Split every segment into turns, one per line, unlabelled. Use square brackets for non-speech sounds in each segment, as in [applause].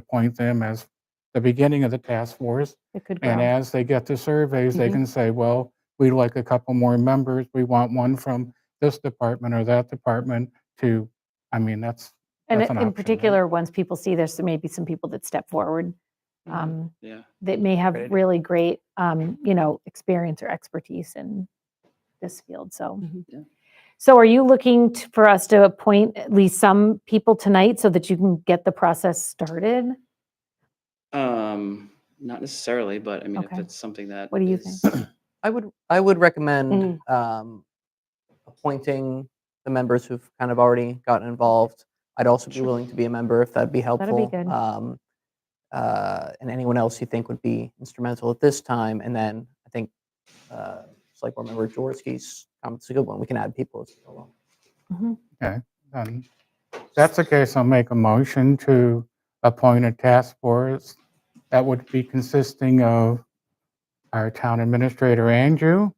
appoint them as the beginning of the task force.
It could
And
grow.
as they get the surveys, they
Mhm.
can say, well, we'd like a couple more members. We want one from this department or that department to, I mean, that's,
And
that's an option,
in
right?
particular, once people see there's maybe some people that step forward
Mm-hmm.
um,
Yeah.
that may have
Right.
really great, um, you know, experience or expertise in this field, so.
Mm-hmm.
Mhm.
Yeah.
So are you looking t- for us to appoint at least some people tonight so that you can get the process started?
Um, not necessarily, but I mean, if
Okay.
it's something that.
What do you
is-
I would, I would recommend
Mm.
um, appointing the members who've kind of already gotten involved. I'd also be
Sure.
willing to be a member if that'd be
be
helpful.
good.
Um, uh, And anyone else you think would be instrumental at this time. And then I think, uh, it's like, remember Jaworski's comment's a good one. We can add people as we
[laughs]
go along.
Then if um, that's the case, I'll make a motion to appoint a task force that would be consisting of our town administrator, Andrew,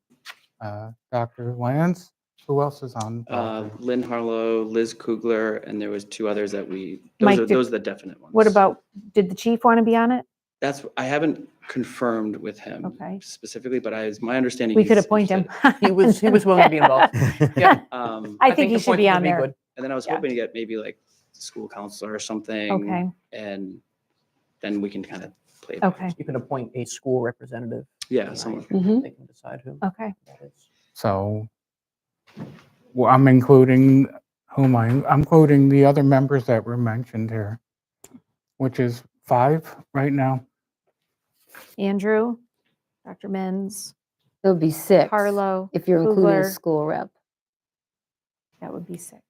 uh, Dr. Lance, who else is on?
Uh, Lynn Harlow, Liz Kugler, and there was two others that we,
Mike,
those are,
did-
those are the definite ones.
What about, did the chief want to be on it?
That's, I haven't confirmed with him
Okay.
specifically, but I, it's my understanding.
We could
he's
appoint him.
interested.
He was, he was willing to
[laughs]
be involved. Yeah.
[laughs] Um,
I think he should be
appointing would
on there.
good.
and then I was
yeah.
hoping to get maybe like school counselor or something.
Okay,
And then we can kind of play. it out.
okay,
You can appoint a school representative.
Yeah, someone.
Mm-hmm.
tonight. They can decide who
okay.
that is.
So well, I'm including whom I, I'm including the other members that were mentioned here, which is five right now.
Andrew, Dr. Menz,
It would be six.
Carlo,
If you're including
Kugler.
a
[laughs]
school rep.
that would be six.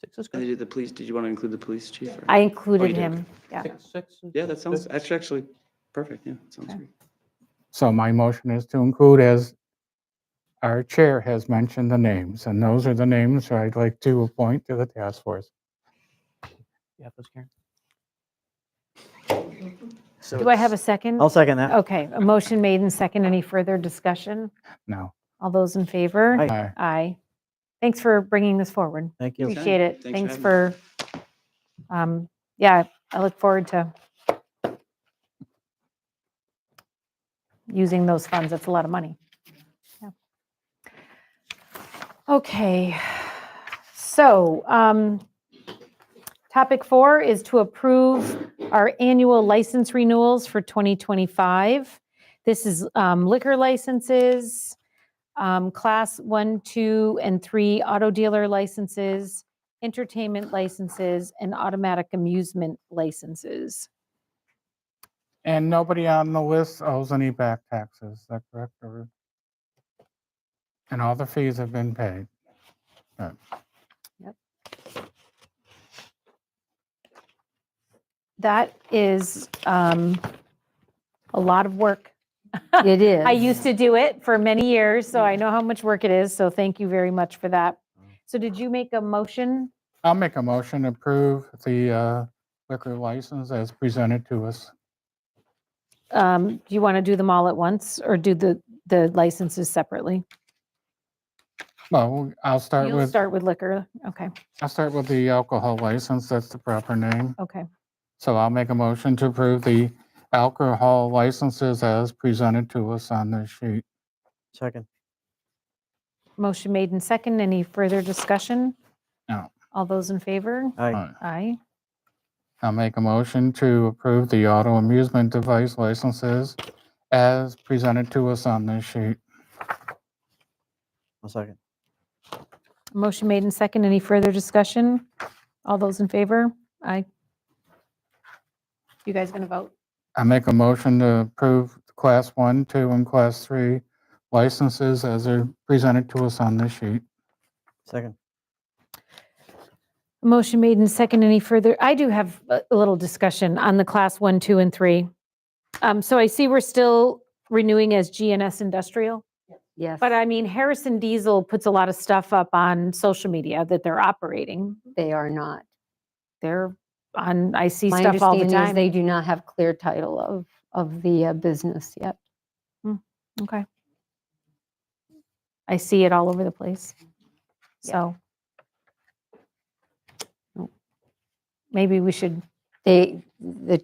Six is
And they
good.
did the police, did you want to include the police chief? or-
I included
did.
him, yeah.
Six- six is-
Yeah, that sounds,
good.
that's actually perfect. Yeah, that sounds
Okay.
great.
So my motion is to include as our chair has mentioned the names, and those are the names that I'd like to appoint to the task force.
You have those, Karen?
Do I have a second?
I'll second that.
Okay, a motion made and second. Any further discussion?
No.
All those in favor?
Aye.
I-
Aye. Thanks for bringing this forward.
Thank you.
Appreciate it.
Thanks for
Thanks
having
for, um, yeah, I look forward to using those funds. That's a lot of money. Yeah. Okay, so um, topic four is to approve our annual license renewals for 2025. This is um, liquor licenses, um, class one, two, and three auto dealer licenses, entertainment licenses, and automatic amusement licenses.
And nobody on the list owes any back taxes, is that correct? or- And all the fees have been paid.
That is um, a lot of work.
It is.
I used to do it for many years, so I know how much work it is. So thank you very much for that. So did you make a motion?
I'll make a motion to approve the uh, liquor license as presented to us.
Um, Do you want to do them all at once or do the, the licenses separately?
Well, I'll start
You'll
with,
start with liquor. Okay,
I'll start with the alcohol license, that's the proper name.
okay.
So I'll make a motion to approve the alcohol licenses as presented to us on this sheet.
Second.
Motion made and second. Any further discussion?
No.
All those in favor?
Aye.
Uh,
Aye.
I'll make a motion to approve the auto amusement device licenses as presented to us on this sheet.
I'll second.
Motion made and second. Any further discussion? All those in favor? Aye. You guys going to vote?
I make a motion to approve the Class 1, 2, and Class 3 licenses as are presented to us on this sheet.
Second.
Motion made and second. Any further? I do have a a little discussion on the class one, two, and three. Um, So I see we're still renewing as GNS Industrial.
Yes.
But I mean, Harrison Diesel puts a lot of stuff up on social media that they're operating.
They are not.
They're on, I see
My
stuff all the
understanding is
time.
they do not have clear title of, of the uh, business yet.
Okay. I see it all over the place. So. Maybe we should
They, the